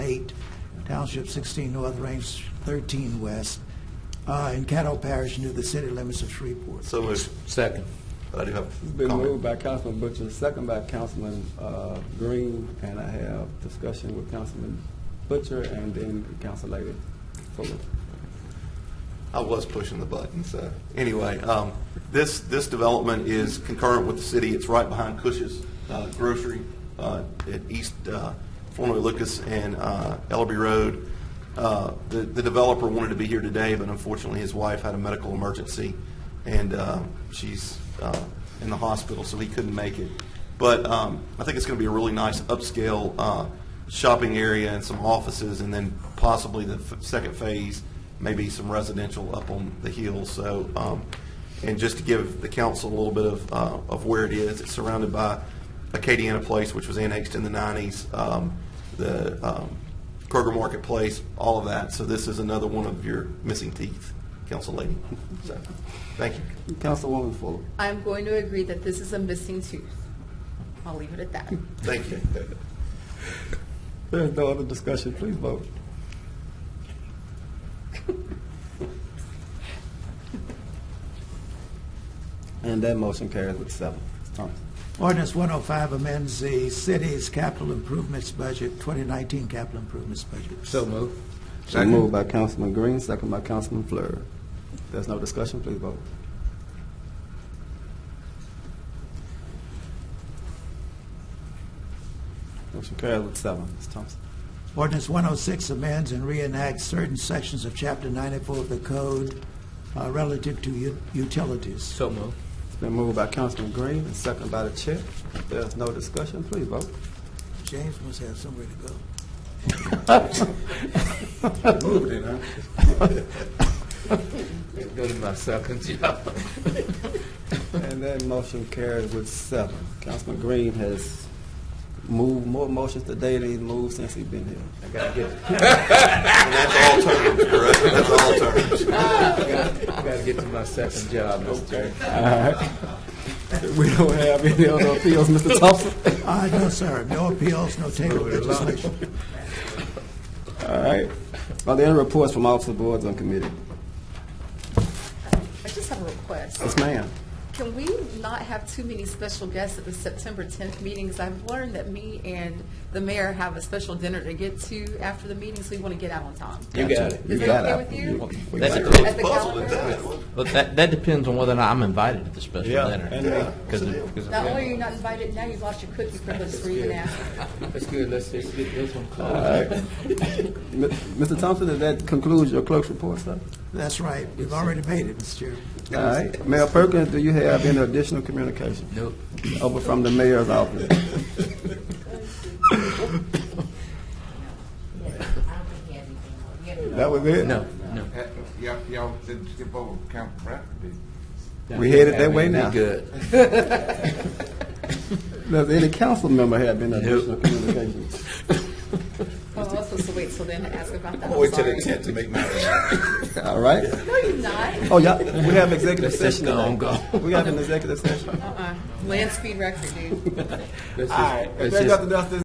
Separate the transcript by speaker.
Speaker 1: Township 16 North, Range 13 West, uh, in Caddo Parish, near the city limits of Shreveport.
Speaker 2: So moved.
Speaker 3: Second.
Speaker 2: I do have
Speaker 4: It's
Speaker 2: a
Speaker 4: been
Speaker 2: comment.
Speaker 4: moved by Councilman Butcher, second by Councilman uh, Green, and I have discussion with Councilman Butcher and then Council Lady Fuller.
Speaker 2: I was pushing the button, so, anyway, um, this, this development is concurrent with the city. It's right behind Cush's uh, Grocery uh, at East, uh, formerly Lucas and uh, Ellaby Road. Uh, The the developer wanted to be here today, but unfortunately, his wife had a medical emergency, and uh, she's uh, in the hospital, so he couldn't make it. But um, I think it's going to be a really nice upscale uh, shopping area and some offices, and then possibly the f- second phase maybe some residential up on the hill. So, um, and just to give the council a little bit of, uh, of where it is, it's surrounded by Acadiana Place, which was annexed in the nineties, um, the, um, Kroger Marketplace, all of that. So this is another one of your missing teeth, council lady. So, thank you.
Speaker 4: Councilwoman Fuller.
Speaker 5: I'm going to agree that this is a missing tooth. I'll leave it at that.
Speaker 2: Thank you.
Speaker 4: There's no other discussion, please vote. And that motion carries with seven. Thomas.
Speaker 1: Ordinance 105 amends the city's capital improvements budget, 2019 capital improvements budget.
Speaker 3: So moved.
Speaker 4: Been Moved by Councilman Green, second by Councilman Fleur. There's no discussion, please vote. Motion carries with seven. Ms. Thompson.
Speaker 1: Ordinance 106 amends and reenacts certain sections of Chapter 94 of the code uh, relative to u- utilities.
Speaker 3: So moved.
Speaker 4: It's been moved by Councilman Green and second by the chair. There's no discussion, please vote.
Speaker 1: James must have somewhere to go.
Speaker 3: Go to my second job.
Speaker 4: And that motion carries with seven. Councilman Green has moved more motions today than he's moved since he's been here.
Speaker 3: I gotta get,
Speaker 2: And that's all terms, correct? That's all terms.
Speaker 3: I gotta get to my second job, Mr. Chairman.
Speaker 4: We don't have any other appeals, Mr. Thompson.
Speaker 1: Uh, No, sir, no appeals, no table legislation.
Speaker 4: All right. Are there any reports from officer boards on committee?
Speaker 5: I just have a request.
Speaker 4: Yes, ma'am.
Speaker 5: Can we not have too many special guests at the September 10th meetings? I've learned that me and the mayor have a special dinner to get to after the meeting, so we want to get out on time.
Speaker 3: You got it.
Speaker 4: You
Speaker 5: Is
Speaker 4: got
Speaker 5: that okay with you?
Speaker 4: We
Speaker 3: That's
Speaker 4: got
Speaker 3: it.
Speaker 4: it.
Speaker 5: At the
Speaker 2: Puzzled at
Speaker 5: calendar?
Speaker 2: that.
Speaker 3: But that, that depends on whether or not I'm invited to the special
Speaker 4: Yeah,
Speaker 3: dinner.
Speaker 4: and, uh,
Speaker 3: Because of- because of-
Speaker 5: Not only are you not invited, now you've lost your cookie privilege for even asking.
Speaker 3: That's good, let's see, get this one closed.
Speaker 4: M- Mr. Thompson, does that conclude your clerk's report, sir?
Speaker 1: That's right, we've already made it, Mr. Chairman.
Speaker 4: All right. Mayor Perkins, do you have any additional communication?
Speaker 3: Nope.
Speaker 4: Over from the mayor's office. That was it?
Speaker 3: No, no.
Speaker 6: Uh, Y'all, y'all didn't skip over Camp Bradford, did you?
Speaker 4: We headed that way
Speaker 3: Be
Speaker 4: now.
Speaker 3: Good.
Speaker 4: Does any council member have any additional communication?
Speaker 5: Well, I'm Oh, supposed to wait till then to ask about that. I'm
Speaker 2: Wait till
Speaker 5: sorry.
Speaker 2: the tenth to make my.
Speaker 4: All right.
Speaker 5: No, you're not.
Speaker 4: Oh, yeah, we have executive
Speaker 3: Let's
Speaker 4: session.
Speaker 3: just go
Speaker 4: today.
Speaker 3: on, go.
Speaker 4: We have an executive session.
Speaker 5: Uh-uh. Land speed record, dude.
Speaker 3: Let's just-
Speaker 4: All right.
Speaker 3: let's
Speaker 4: If there's
Speaker 3: just-
Speaker 4: nothing else,